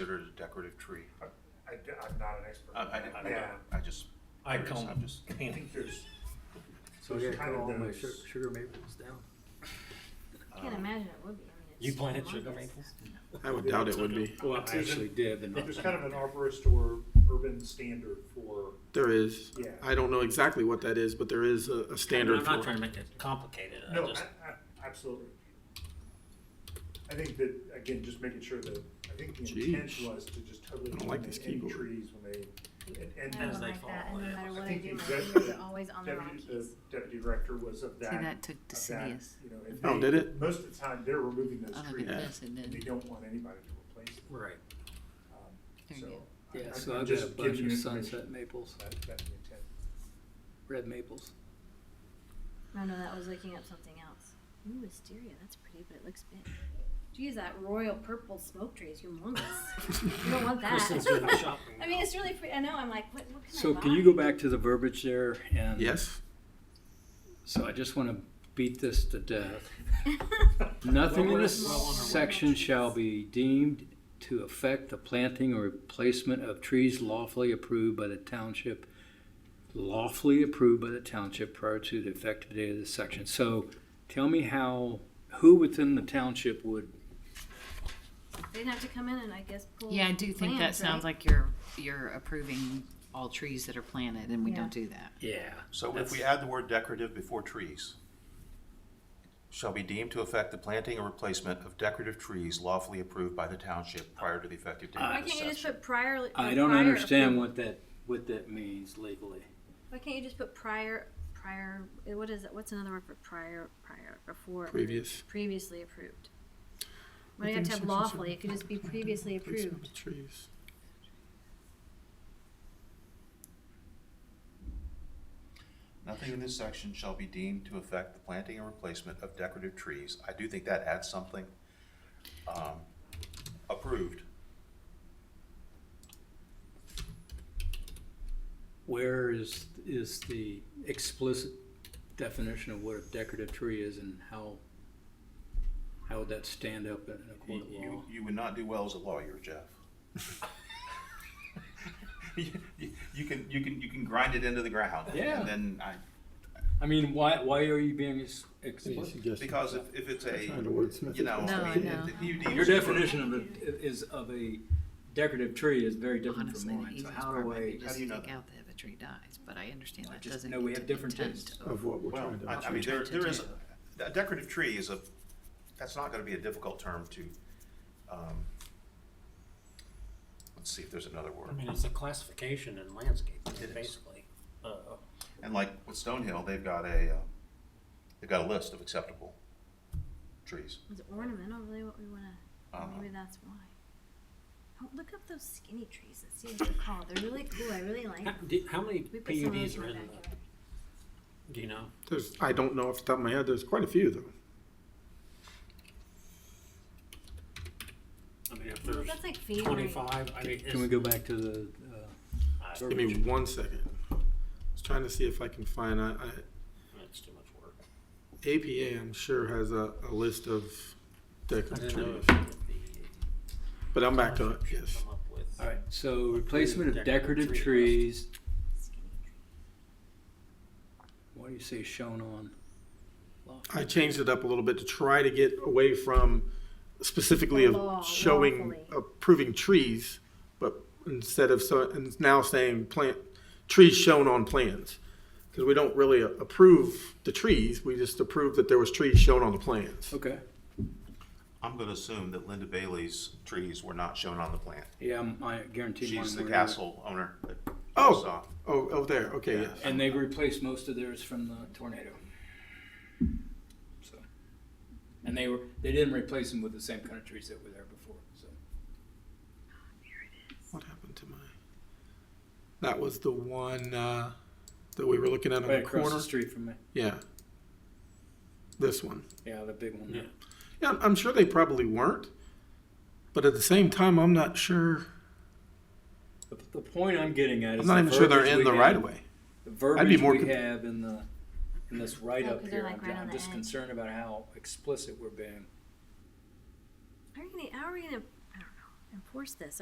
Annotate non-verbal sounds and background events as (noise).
considered a decorative tree? I, am not an expert. Uh, I, on I that. didn't, I Yeah, don't- I just. I curious, come I'm just, I think (laughs) there's, So I gotta Kind cut of all my those- sugar, sugar maples down. I can't imagine it would be. I mean, Um, it's You planted humongous. sugar maples? I would doubt it would be. Well, I actually did, but not. there's kind of an arborist or urban standard for, There is. Yeah. I don't know exactly what that is, but there is a, a standard I'm not for trying it. to make it complicated. I no, Uh, just, I- I- absolutely. I think that, again, just making sure that, I think the Jeez. intent was to just totally I don't like eliminate this any keyboard. trees when they, and- and. I As don't they like that, fall, and yeah. no matter I what I think (laughs) do, my exactly fingers that are always on the wrong Deputy, keys. the deputy director was of that. See, that took of that, Desidious. You know, if Oh, they- did it? Most of the time, they're removing those I don't trees. think this, it and They did. don't want anybody to replace them. right. Um, There you so go. I- Yeah, I'm- so I'm I've got just a bunch giving of you information. sunset maples, That, that's the intent. red maples. No, no, that was looking up something else. Ooh, wisteria. That's pretty, but it looks big. Geez, that royal purple smoke tree is humongous. you don't want that. Kristen's (laughs) doing the shopping I mean, it's really. Pre- I know. I'm like, what? what can I So buy? can you go back to the verbiage there and? (laughs) Yes. So I just wanna beat this to death. (laughs) Nothing Well, in we're this well on our way. section shall be deemed to affect the planting or replacement of trees lawfully approved by the township, lawfully approved by the township prior to the effective date of this section. So tell me how, who within the township would, (laughs) They'd have to come in and I guess pull. Yeah, I do think that plans, sounds right? like you're, you're approving all trees that are planted and we Yeah. don't do that. yeah. so if we that's- add the word decorative before trees, shall be deemed to affect the planting or replacement of decorative trees lawfully approved by the township prior to the effective date Why of this Uh, can't you just section. put prior? I or don't prior understand approval? what that, what that means legally. Why can't you just put prior, prior? eh, What is it? What's another word for prior? Prior before Previous. previously approved. Why do you have to have lawfully? It could just be previously approved. Trees. Nothing in this section shall be deemed to affect the planting or replacement of decorative trees. I do think that adds something. Um, Approved. Where is, is the explicit definition of what a decorative tree is and how, how would that stand up in a court You, of law? you- you would not do well as a lawyer, Jeff. You you can, you can, you can grind it into the ground. Yeah. And then I, I mean, why, why are you being ex- explicit? because if, if it's a, Trying to wordsmith it. you know, No, I I mean, know. if you Your need definition of a, is of a decorative tree is very different from Honestly, the mine, so easiest how do part might I? be just do you take know out that? that if a tree dies, but I understand I that just doesn't know we get have to the different intent tastes. Of what we're Well, trying to. I, I mean, there, trying to there is, a do. a decorative tree is a, that's not gonna be a difficult term to, um, let's see if there's another I word. mean, it's a classification in landscaping, It is. basically. Uh, And like with Stonehill, they've got a, uh, they've got a list of acceptable trees. Is ornamental really what we want to? Uh-huh. Maybe that's why. Oh, look up those skinny trees and see what they're called. They're really cool. I really like how, them. do- how many We put some of those PUDs in are my in the, backyard. do you know? There's, I don't know off the top of my head. There's quite a few though. I mean, if Well, there's that's like favorite. twenty-five, I mean, Can we it's, go back to the, uh, I- Give me one second. I was trying to see if I can find, I, I, it's too much work. APA, I'm sure has a, a list of I decorative didn't know trees. if the But I'm back to it, township should yes. come up with- all right, so replacement of Decorative decorative tree trees, Skinny trees. what do you say shown on? I changed it up a little bit to try to get away from specifically The law, of showing, uh, lawfully. approving trees, but instead of, so, and it's now saying plant, trees shown on plans. Because we don't really approve the trees, we just approve that there was trees shown on the plans. Okay, I'm gonna assume that Linda Bailey's trees were not shown on the plant. yeah, I'm- I guarantee mine. She's the were. castle owner. that- Oh, oh, oh, there, okay, yes. And they've replaced most of theirs from the tornado. So, and they were they didn't replace them with the same kind of trees that were there before. So What happened to my? That was the one uh, that we were looking at on right the across corner. the street from me. Yeah. This one. Yeah, the big one. Yeah. Yeah, I'm- I'm sure they probably weren't, but at the same time, I'm not sure. The, the point I'm getting at is I'm not the even sure they're verbiage in we the have- right of way. The verbiage I'd be more we con- have in the in this write Oh, up 'cause they're here. like I'm, right on I'm the just edge. concerned about how explicit we're being. How are you gonna? How are we gonna? I don't know. Enforce this?